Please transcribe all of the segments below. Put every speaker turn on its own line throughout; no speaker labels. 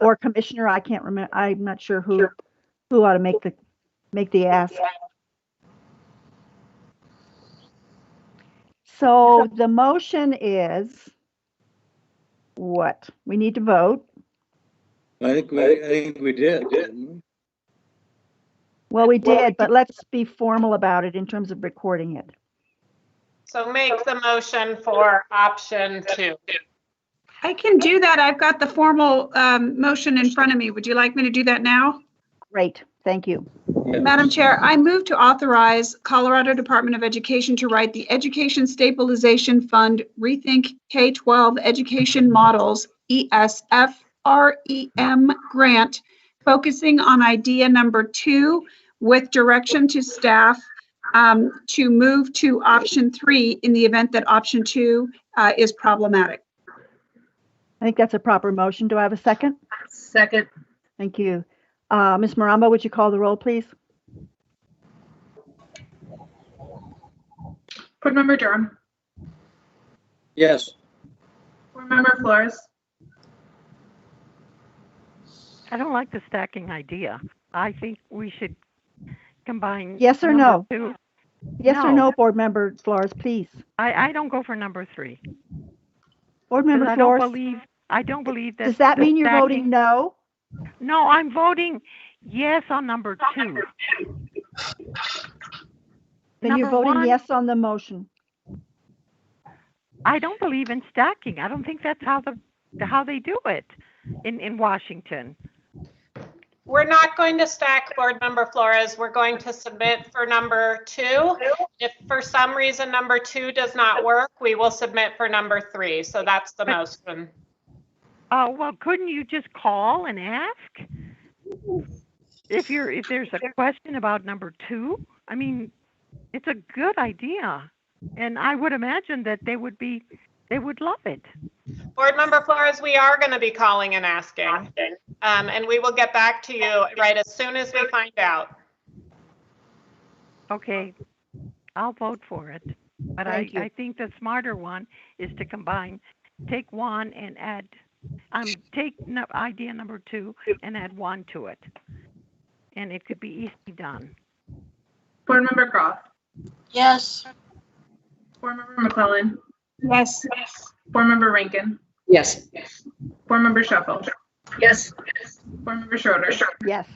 or commissioner, I can't remember, I'm not sure who, who ought to make the, make the ask. So the motion is what? We need to vote.
I think we, I think we did, didn't we?
Well, we did, but let's be formal about it in terms of recording it.
So make the motion for option two.
I can do that. I've got the formal um, motion in front of me. Would you like me to do that now?
Great, thank you.
Madam Chair, I move to authorize Colorado Department of Education to write the Education Stabilization Fund Rethink K-12 Education Models E ESF REM E grant, focusing on idea number two with direction to staff um, to move to option three in the event that option two uh, is problematic.
I think that's a proper motion. Do I have a second?
Second,
Thank you. Uh, Ms. Maramba, would you call the roll, please?
Board Member Durham.
Yes,
Board Member Flores.
I don't like the stacking idea. I think we should combine.
Yes or
number two.
Yes or
No.
no, Board Member Flores, please?
I, I don't go for number three. 'cause
Board Member
I don't
Flores,
believe, I don't believe that.
does that
the
mean you're voting
stacking-
no?
No, I'm voting yes on number two.
Then you're
Number
voting
one-
yes on the motion.
I don't believe in stacking. I don't think that's how the, how they do it in, in Washington.
We're not going to stack board member Flores. We're going to submit for number two. If for some reason number two does not work, we will submit for number three. So that's the motion.
Uh, well, couldn't you just call and ask? If you're, if there's a question about number two, I mean, it's a good idea. And I would imagine that they would be, they would love it.
Board member Flores, we are going to be calling and asking. Um, and we will get back to you right as soon as we find out.
Okay, I'll vote for it. But I,
Thank you.
I think the smarter one is to combine, take one and add, um, take nu- idea number two and add one to it. And it could be easily done.
Board Member Croft.
yes.
Board Member McClellan.
Yes.
Board Member Rankin.
Yes.
Board Member Shuffle.
Yes.
Board Member Schroeder.
Yes.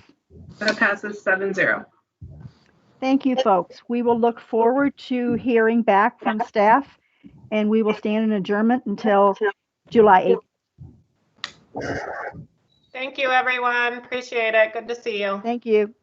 That passes seven zero.
Thank you, folks. We will look forward to hearing back from staff, and we will stand in adjournment until July 8th.
Thank you, everyone. Appreciate it. Good to see you.
Thank you.